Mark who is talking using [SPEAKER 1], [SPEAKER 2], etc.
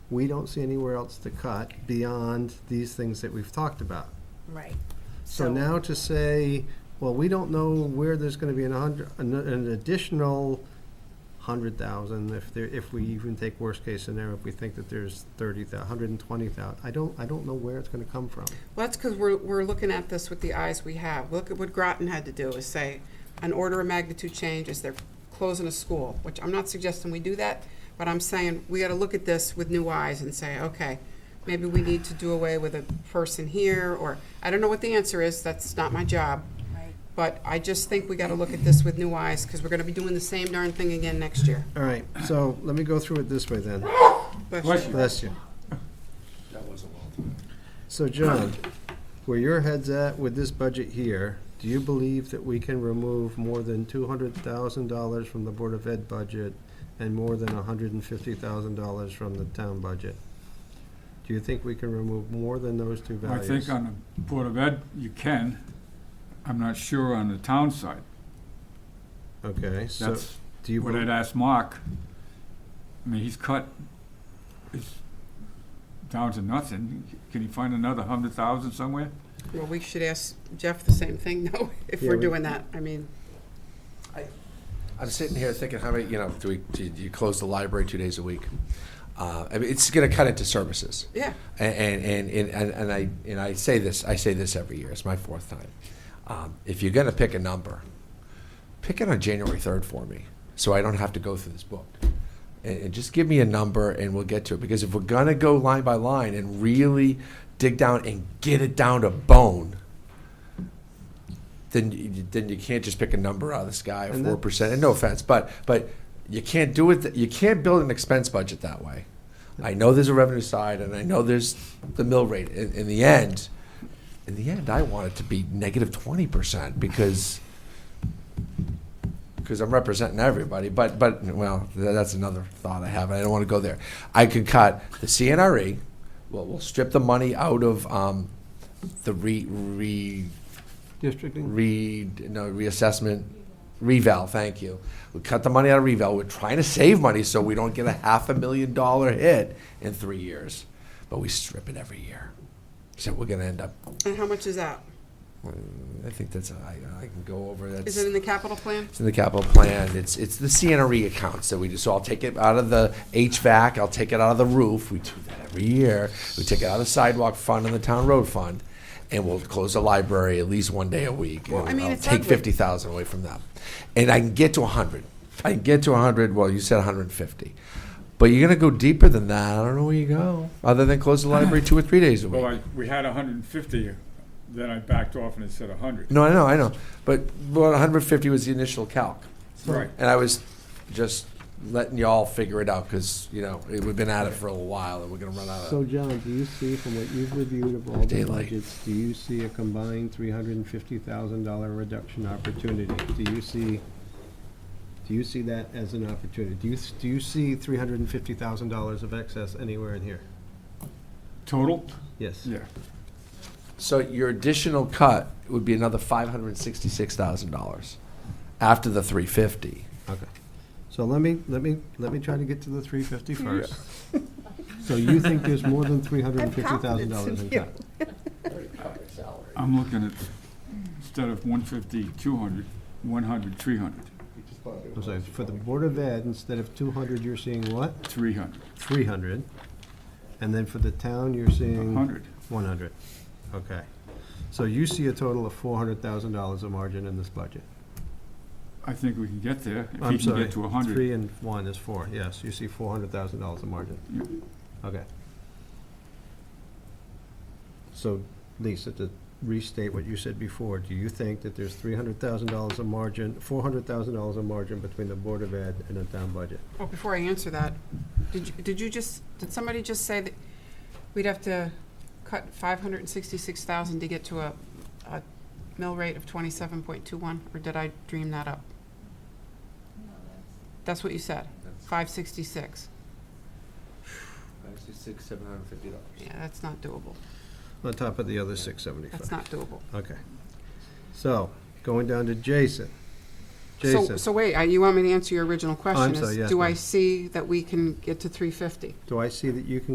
[SPEAKER 1] we don't see anywhere else to cut beyond these things that we've talked about.
[SPEAKER 2] Right.
[SPEAKER 1] So now to say, well, we don't know where there's gonna be an hundred, an- an additional hundred thousand, if there, if we even take worst case scenario, if we think that there's thirty thou, hundred and twenty thousand, I don't, I don't know where it's gonna come from.
[SPEAKER 3] Well, that's because we're, we're looking at this with the eyes we have. Look at what Groton had to do, is say, an order of magnitude change is they're closing a school, which I'm not suggesting we do that, but I'm saying, we gotta look at this with new eyes and say, okay, maybe we need to do away with a person here, or, I don't know what the answer is, that's not my job.
[SPEAKER 2] Right.
[SPEAKER 3] But I just think we gotta look at this with new eyes, because we're gonna be doing the same darn thing again next year.
[SPEAKER 1] All right, so let me go through it this way then.
[SPEAKER 3] Bless you.
[SPEAKER 1] Bless you.
[SPEAKER 4] That was a long time.
[SPEAKER 1] So John, where your head's at with this budget here, do you believe that we can remove more than two hundred thousand dollars from the Board of Ed budget and more than hundred and fifty thousand dollars from the town budget? Do you think we can remove more than those two
[SPEAKER 5] I
[SPEAKER 1] values?
[SPEAKER 5] think on the Board of Ed, you can. I'm not sure on the town side.
[SPEAKER 1] Okay, so
[SPEAKER 5] That's
[SPEAKER 1] do you,
[SPEAKER 5] what I'd
[SPEAKER 1] bel-
[SPEAKER 5] ask Mark. I mean, he's cut, it's down to nothing. Can he find another hundred thousand somewhere?
[SPEAKER 3] Well, we should ask Jeff the same thing, though, if
[SPEAKER 1] Yeah,
[SPEAKER 3] we're
[SPEAKER 1] we-
[SPEAKER 3] doing that. I mean,
[SPEAKER 4] I'm sitting here thinking, how many, you know, do we, do you close the library two days a week? Uh, I mean, it's going to cut into services.
[SPEAKER 3] yeah.
[SPEAKER 4] And, and, and, and, and I, and I say this, I say this every year, it's my fourth time. Um, if you're going to pick a number, pick it on January 3rd for me, so I don't have to go through this book. And, and just give me a number and we'll get to it. Because if we're going to go line by line and really dig down and get it down to bone, then you, then you can't just pick a number out of the sky of
[SPEAKER 1] And
[SPEAKER 4] four percent. And no offense, but but you can't do it. th- You can't build an expense budget that way. I know there's a revenue side, and I know there's the mill rate. In, in the end, in the end, I want it to be negative twenty percent because because I'm representing everybody. But but well, th- that's another thought I have. and I don't want to go there. I could cut the CNRE. E, We'll, we'll strip the money out of um, the re re
[SPEAKER 1] districting,
[SPEAKER 4] re no reassessment reval. Thank you. We cut the money out of reval. We're trying to save money so we don't get a half a million dollar hit in three years, but we strip it every year. So we're gonna end up.
[SPEAKER 3] And how much is that?
[SPEAKER 4] I think that's I, I can go over that.
[SPEAKER 3] Is it in the capital plan?
[SPEAKER 4] It's in the capital plan. It's, it's the CNRE E accounts that we do. So I'll take it out of the HVAC, I'll take it out of the roof. We do that every year. We take it out of the sidewalk fund and the town road fund. And we'll close the library at least one day a week. and
[SPEAKER 3] Well, I mean,
[SPEAKER 4] I'll
[SPEAKER 3] it's
[SPEAKER 4] Take
[SPEAKER 3] ugly.
[SPEAKER 4] fifty thousand away from them. And I can get to a hundred. I can get to a hundred, well, you said hundred and fifty. But you're gonna go deeper than that. I don't know where you go, other than close the library two or three days a week.
[SPEAKER 5] Well, I, we had hundred and fifty, then I backed off and it said hundred.
[SPEAKER 4] No, I know, I know. But, well, hundred and fifty was the initial calc.
[SPEAKER 5] Right.
[SPEAKER 4] And I was just letting y'all figure it out because, you know, it- we've been at it for a while and we're going to run out
[SPEAKER 1] so
[SPEAKER 4] of.
[SPEAKER 1] John, do you see from what you've reviewed of all the
[SPEAKER 4] Daylight.
[SPEAKER 1] budgets, do you see a combined three hundred and fifty thousand dollar reduction opportunity? Do you see, do you see that as an opportunity? Do you, s- do you see three hundred and fifty thousand dollars of excess anywhere in here?
[SPEAKER 5] Total?
[SPEAKER 1] Yes.
[SPEAKER 5] Yeah.
[SPEAKER 4] So your additional cut would be another $566,000 after the 350.
[SPEAKER 1] Okay. So let me, let me, let me try to get to the three fifty first. So you think there's more than three hundred and fifty thousand dollars in cut?
[SPEAKER 5] I'm looking at, instead of one fifty, two hundred, one hundred, three hundred,
[SPEAKER 1] I'm sorry, for the Board of Ed, instead of two hundred, you're seeing what?
[SPEAKER 5] three hundred,
[SPEAKER 1] Three hundred. And then for the town, you're seeing?
[SPEAKER 5] hundred.
[SPEAKER 1] One hundred. Okay. So you see a total of four hundred thousand dollars of margin in this budget?
[SPEAKER 5] I think we can get there, if
[SPEAKER 1] I'm
[SPEAKER 5] he can
[SPEAKER 1] sorry.
[SPEAKER 5] get to hundred.
[SPEAKER 1] Three and one is four, yes. You see four hundred thousand dollars of margin.
[SPEAKER 5] Yep.
[SPEAKER 1] Okay. So, Lisa, to restate what you said before, do you think that there's three hundred thousand dollars of margin, four hundred thousand dollars of margin between the Board of Ed and the town budget?
[SPEAKER 3] Well, Oh, before I answer that, did you, did you just, did somebody just say that we'd have to cut five hundred and sixty-six thousand to get to a, a mill rate of twenty-seven point two one, or did I dream that up? That's what you said, five sixty-six.
[SPEAKER 4] Six, seven hundred and fifty dollars.
[SPEAKER 3] Yeah, that's not doable.
[SPEAKER 1] On top of the other six
[SPEAKER 3] That's
[SPEAKER 1] seventy-five?
[SPEAKER 3] not doable.
[SPEAKER 1] Okay. So, going down to Jason.
[SPEAKER 3] So,
[SPEAKER 1] Jason,
[SPEAKER 3] so wait, uh, you want me to answer your original question?
[SPEAKER 1] sorry,
[SPEAKER 3] is
[SPEAKER 1] yes,
[SPEAKER 3] Do I
[SPEAKER 1] ma'am.
[SPEAKER 3] see that we can get to three fifty?
[SPEAKER 1] do I see that you can